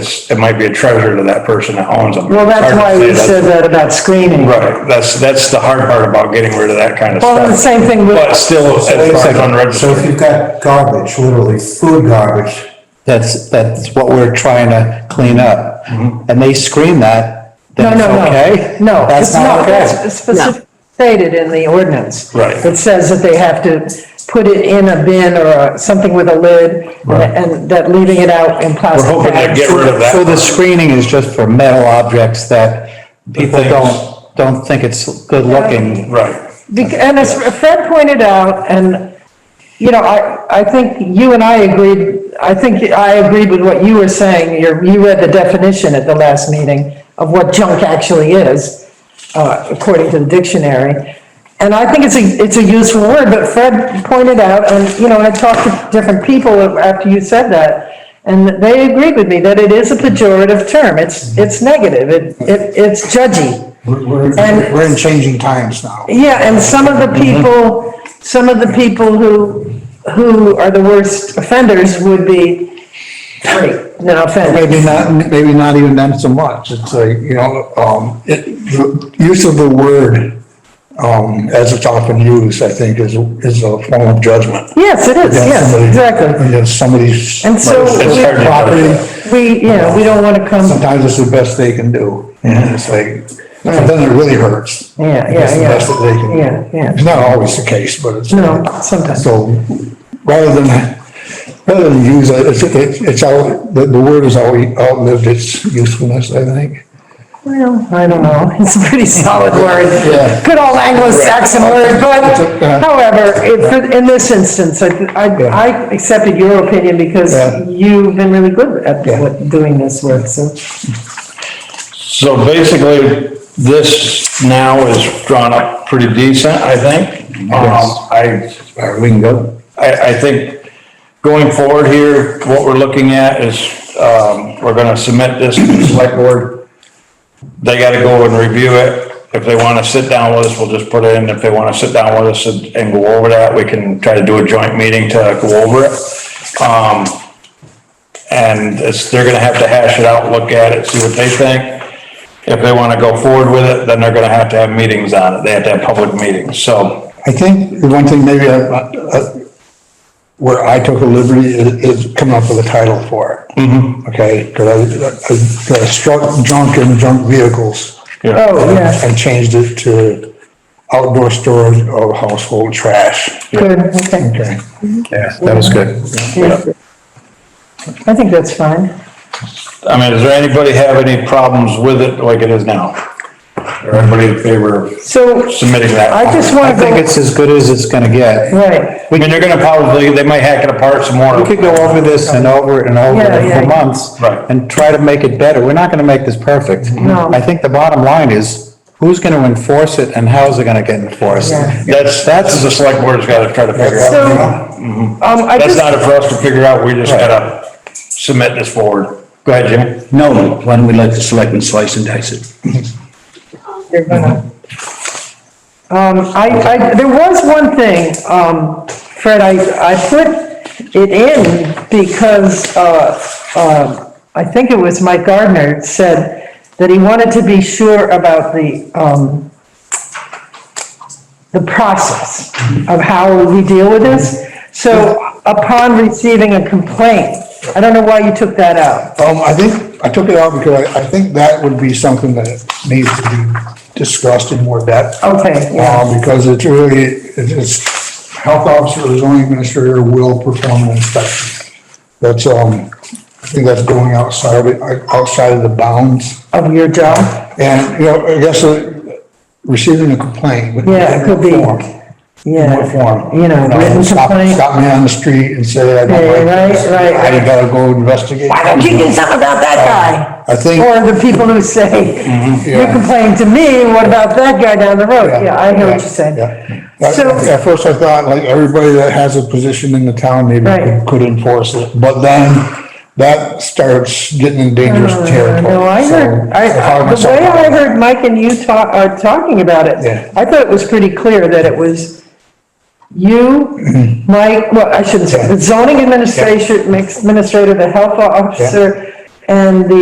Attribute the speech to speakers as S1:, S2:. S1: it's, it might be a treasure to that person that owns them.
S2: Well, that's why you said that about screening.
S1: Right, that's, that's the hard part about getting rid of that kind of stuff.
S2: Well, the same thing with-
S1: But still, it's
S3: Wait a second. So if
S1: unregistered.
S3: you've got garbage, literally food garbage,
S4: That's, that's what we're trying to clean up.
S1: Mm-hmm.
S4: And they screen that,
S2: No,
S4: then it's
S2: no, no.
S4: okay?
S2: No,
S4: That's
S2: it's not,
S4: not okay.
S2: that's specifically stated in the ordinance.
S1: Right.
S2: It says that they have to put it in a bin or a- something with a lid,
S1: Right.
S2: and that leaving it out in plastic
S1: We're hoping to
S2: bags.
S1: get rid of that.
S4: So the screening is just for metal objects that people
S1: things-
S4: don't, don't think it's good looking.
S1: Right.
S2: Bec- And as Fred pointed out, and, you know, I, I think you and I agreed, I think I agreed with what you were saying, You're- you read the definition at the last meeting of what junk actually is, uh, according to the dictionary. And I think it's a, it's a useful word, but Fred pointed out, and, you know, I talked to different people after you said that, and they agreed with me that it is a pejorative term, it's, it's negative, it, it it's judgy.
S5: We're, we're,
S2: And-
S5: we're in changing times now.
S2: Yeah, and some of the
S5: Mm-hmm.
S2: people, some of the people who, who are the worst offenders would be free, no offense.
S5: Maybe not, maybe not even them so much. It's like, you know, um, it, the use of the word, um, as it's often used, I think, is, is a form of judgment.
S2: Yes, it is, yes,
S5: Somebody-
S2: exactly.
S5: Against somebody's.
S2: And so
S1: It's hard to-
S5: Property,
S2: we, you know, we don't want to come,
S5: sometimes it's the best they can do. And it's like, sometimes it really hurts.
S2: yeah,
S5: It's the
S2: yeah,
S5: best that they
S2: yeah,
S5: can.
S2: yeah, yeah.
S5: It's not always the case, but it's.
S2: No, sometimes.
S5: So rather than, rather than use it, it's, it's- it's out, the, the word has always outlived its usefulness, I think.
S2: Well, I don't know, it's a pretty solid word.
S5: Yeah.
S2: Good old Anglo-Saxon word, but
S5: It's a- uh,
S2: however, if- in this instance, I, I I accepted your opinion because
S5: Yeah.
S2: you've been really good at
S5: Yeah.
S2: what- doing this work, so.
S1: So basically, this now is drawn up pretty decent, I think. Um, I,
S5: All right, we can go.
S1: I, I think going forward here, what we're looking at is, um, we're gonna submit this to the select board. They gotta go and review it. If they wanna sit down with us, we'll just put it in. If they wanna sit down with us and, and go over that, we can try to do a joint meeting to go over it. Um, and it's, they're gonna have to hash it out, look at it, see what they think. If they wanna go forward with it, then they're gonna have to have meetings on it. They have to have public meetings, so.
S5: I think the one thing maybe I, I- where I took a liberty is, is coming up with a title for it. Mm-hmm. Okay, cause I, I I struck junk and junk vehicles.
S1: Yeah.
S2: Oh, yeah,
S5: And changed it to outdoor storage of household trash.
S2: good, okay.
S5: Okay.
S4: Yeah, that was good.
S2: I think that's fine.
S1: I mean, does there anybody have any problems with it like it is now? Or everybody in favor of
S2: So
S1: submitting that?
S2: I just
S4: I
S2: want to
S4: think
S2: go,
S4: it's as good as it's gonna get.
S1: I
S2: right,
S1: mean, they're gonna probably, they might hack it apart some more.
S4: We could go over this and over it and over
S2: Yeah,
S4: it
S2: yeah.
S4: for months.
S1: Right.
S4: And try to make it better. We're not gonna make this perfect.
S2: No.
S4: I think the bottom line is, who's gonna enforce it and how's it gonna get enforced?
S2: Yeah.
S1: That's, that's the select board's gotta try to figure
S2: so,
S1: out.
S2: um,
S4: Mm-hmm.
S2: I
S1: That's
S2: just,
S1: not for us to figure out, we just gotta submit this forward. Go ahead, Jimmy.
S6: No, why don't we let the selectmen slice and dice it?
S2: you're gonna. Um, I, I, there was one thing, um, Fred, I, I put it in because, uh, uh, I think it was Mike Gardner said that he wanted to be sure about the, um, the process of how we deal with this. So upon receiving a complaint, I don't know why you took that out.
S5: Um, I think, I took it out because I, I think that would be something that needs to be discussed in more depth.
S2: Okay, yeah,
S5: Uh, because it's really, it's, health officer or zoning administrator will perform an inspection. That's, um, I think that's going outside, of it, outside of the bounds.
S2: of your job?
S5: And, you know, I guess uh, receiving a complaint. would
S2: Yeah, it could be.
S5: in what form? In
S2: Yeah.
S5: what form? Um,
S2: You know, written
S5: stop-
S2: complaint.
S5: Stop me on the street and say I
S2: Yeah,
S5: don't like this.
S2: right, right,
S5: I
S2: right.
S5: gotta go investigate.
S2: Why don't you do something about that guy?
S5: Uh, I think. Mm-hmm.
S2: Or the people who say, you
S5: yeah.
S2: complained to me, what about that guy down the road? Yeah, I hear what you're saying.
S5: Yeah. uh, At
S2: So-
S5: at first I thought, like, everybody that has a position in the town maybe
S2: Right.
S5: could- could enforce it, but then that starts getting in dangerous
S2: Uh,
S5: territory.
S2: No, I
S5: so
S2: heard,
S5: found
S2: I, the
S5: myself-
S2: way I heard Mike and you talk, are talking about it,
S5: Yeah.
S2: I thought it was pretty clear that it was you,
S5: Mm-hmm.
S2: Mike, well, I shouldn't say, the zoning administration, administrator, the health officer, and the